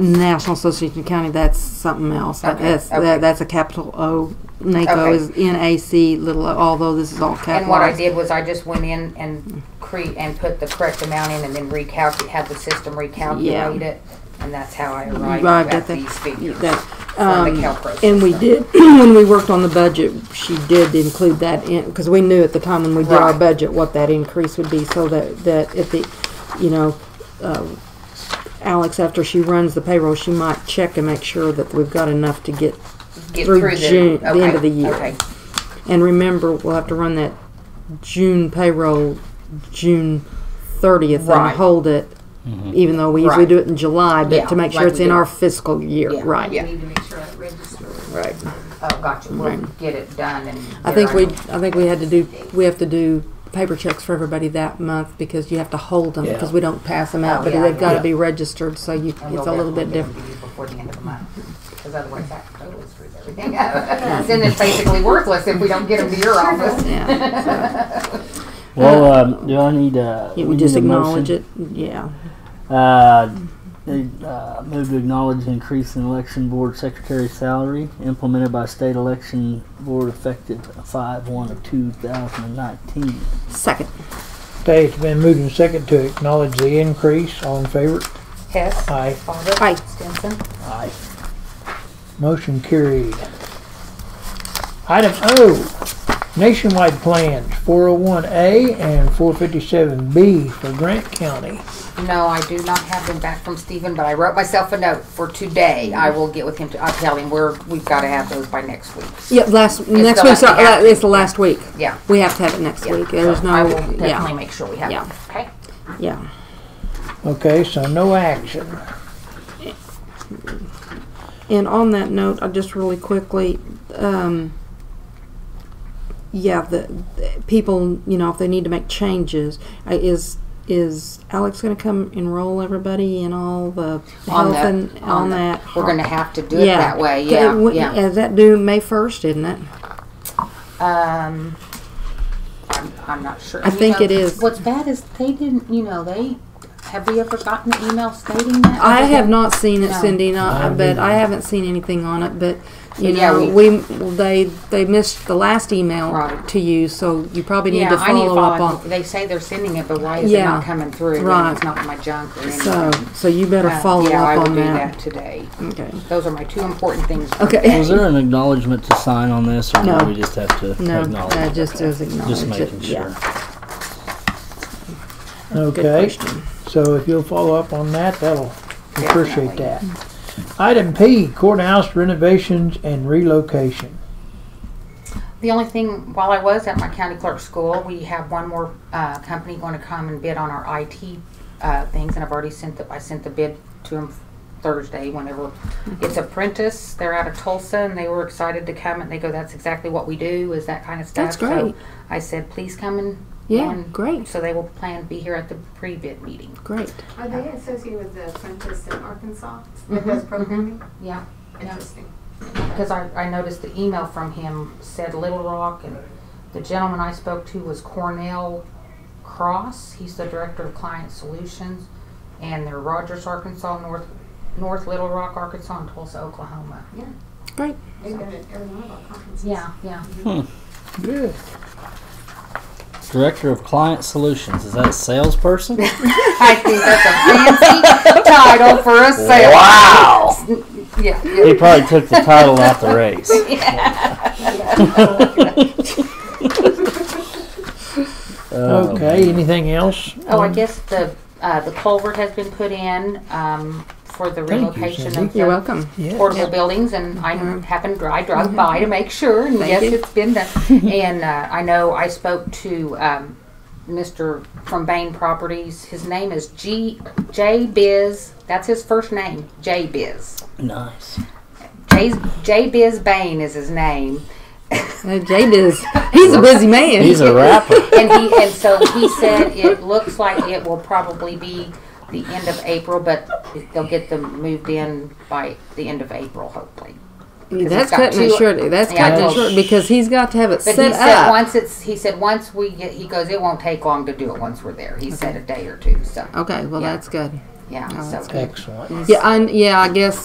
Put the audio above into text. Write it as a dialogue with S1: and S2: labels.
S1: National Association of County, that's something else. That-
S2: Okay,
S1: That's,
S2: okay.
S1: that- that's a capital O. NACO
S2: Okay.
S1: is N-A-C, little, o, although this is all capitalized.
S2: And what I did was I just went in and cre- and put the correct amount in and then recalculate, have the system recalculate it. And that's how I arrived
S1: arrived
S2: at
S1: at the-
S2: these figures
S1: that, um,
S2: from the CalPERS.
S1: And we did, when we worked on the budget, she did include that in, because we knew at the time when we did our
S2: Right.
S1: budget what that increase would be, so that, that if the, you know, uh, Alex, after she runs the payroll, she might check and make sure that we've got enough to get,
S2: Get
S1: through
S2: through
S1: June- the end
S2: okay,
S1: of the year.
S2: Okay,
S1: and remember, we'll have to run that June payroll, June thirtieth, and
S2: Right.
S1: hold it,
S3: Mm-hmm.
S1: even though we usually
S2: Right.
S1: do it in July,
S2: Yeah,
S1: but to make sure
S2: like
S1: it's
S2: we
S1: in
S2: do.
S1: our fiscal year,
S2: Yeah,
S1: right?
S2: yeah.
S4: We need to make sure that registers.
S1: Right.
S2: oh, gotcha, we'll get it done and.
S1: I
S2: get
S1: think
S2: our-
S1: we, I think we had to do, we have to do paper checks for everybody that month because you have to hold them because we don't pass them out,
S2: Oh,
S1: but
S2: yeah,
S1: they've got to
S2: yeah.
S1: be registered, so you,
S2: and
S1: it's a
S2: we'll
S1: little bit
S2: definitely
S1: different.
S2: get it to you Before the end of the month, because otherwise that totally screws everything up. Then it's basically worthless if we don't get them to your office.
S1: Yeah,
S3: Well, um, do I need uh,
S1: you
S3: we
S1: would just
S3: need a
S1: acknowledge
S3: motion?
S1: it, yeah.
S3: Uh, uh, move to acknowledge the increase in election board secretary salary implemented by state election board effective five one of two thousand and nineteen.
S1: Second,
S5: Okay, it's been moved and second to acknowledge the increase. All in favor?
S2: Hess.
S5: Aye.
S2: Bobbit.
S1: Aye.
S2: Stinson.
S3: Aye.
S5: Motion carried. Item O, nationwide plans, 401A and 457B for Grant County.
S2: No, I do not have them back from Stephen, but I wrote myself a note for today.
S1: Mm-hmm.
S2: I will get with him. to- I'll tell him we're, we've got to have those by next week.
S1: yeah, last, next
S2: the
S1: week's,
S2: last-
S1: uh, it's the last week.
S2: Yeah.
S1: We have to have it next
S2: Yeah.
S1: week, there's
S2: So I
S1: no,
S2: will definitely
S1: yeah,
S2: make sure we have
S1: Yeah.
S2: them. Okay.
S1: yeah.
S5: Okay, so no action.
S1: And on that note, I just really quickly, um, yeah, the, the people, you know, if they need to make changes, I- is is Alex going to come enroll everybody in all the health
S2: On that,
S1: and on,
S2: on
S1: that?
S2: that, we're going to have to do it that way.
S1: Okay,
S2: Yeah,
S1: wouldn't-
S2: yeah.
S1: uh, that due May first, isn't it?
S2: Um, I'm, I'm not sure.
S1: I
S2: You
S1: think
S2: know,
S1: it is.
S2: What's bad is they didn't, you know, they, have we ever gotten an email stating that?
S1: I have not seen it,
S2: No.
S1: Cindy. Not,
S5: I
S1: but I
S5: haven't.
S1: haven't seen anything on it. But you
S2: Yeah,
S1: know,
S2: we-
S1: we, they they missed the last email
S2: Right.
S1: to you, so you probably need
S2: Yeah,
S1: to
S2: I
S1: follow,
S2: need to follow
S1: up on.
S2: up. They say they're sending it, but why is it
S1: Yeah.
S2: not coming through? You know,
S1: Right.
S2: It's not in my junk or anything.
S1: So, so you better
S2: Uh,
S1: follow
S2: yeah, I
S1: up on
S2: will do
S1: that.
S2: today.
S1: Okay.
S2: Those are my two important things. for
S1: Okay.
S3: Was there an acknowledgement to sign on this, or
S1: No.
S3: do we just have to
S1: No,
S3: acknowledge?
S1: that
S3: it?
S1: just is acknowledged.
S3: just making sure.
S1: Good
S5: Okay,
S1: question.
S5: so if you'll follow up on that, that'll we appreciate
S2: Definitely.
S5: that. Item P, courthouse renovations and relocation.
S2: The only thing, while I was at my county clerk school, we have one more uh, company going to come and bid on our IT uh, things, and I've already sent the, I sent the bid to them Thursday, whenever. It's Apprentice, they're out of Tulsa, and they were excited to come, and they go, that's exactly what we do, is that kind of stuff.
S1: That's
S2: So
S1: great.
S2: I said, please come and.
S1: Yeah,
S2: and-
S1: great.
S2: So they will plan to be here at the pre-bid meeting.
S1: Great.
S4: Are they associated with the apprentice in Arkansas that does programming?
S2: Mm-hmm, Yeah,
S4: Interesting.
S2: because I, I noticed the email from him said Little Rock, and the gentleman I spoke to was Cornell Cross. He's the director of client solutions, and they're Rogers, Arkansas, North North Little Rock, Arkansas, and Tulsa, Oklahoma.
S1: Great.
S4: They've been at every one of our conferences.
S2: Yeah, yeah.
S5: Good.
S3: Director of Client Solutions is that a salesperson?
S2: I think that's a fancy title for a sale.
S3: wow!
S2: Yeah,
S3: He probably took the title off the race. Oh,
S5: Okay, anything else? Um,
S2: Oh, I guess the uh, the culvert has been put in um, for the
S5: you,
S2: relocation
S5: Cindy.
S2: of the
S1: You're welcome.
S5: Yes.
S2: portable buildings, and I happened, I drove by to make sure, and yes,
S1: you.
S2: it's been done. And uh, I know I spoke to um, Mr. from Bain Properties, his name is G, J Biz, that's his first name, J Biz.
S3: nice.
S2: J's- J Biz Bain is his name.
S1: Uh, Jade is. He's a busy man.
S3: He's a rapper.
S2: And he, and so he said it looks like it will probably be the end of April, but they'll get them moved in by the end of April, hopefully.
S1: that's
S2: got
S1: cutting it
S2: two-
S1: short. That's
S2: Yeah, I
S1: cutting it
S2: know.
S1: short because he's got to have it
S2: But
S1: set
S2: he said
S1: up.
S2: once it's he said once we get he goes it won't take long to do it once we're there. He said a day or two. So
S1: Okay. Well,
S2: Yeah.
S1: that's good.
S2: yeah,
S1: Oh,
S2: so.
S1: that's
S5: Excellent.
S1: Yeah, I, yeah, I guess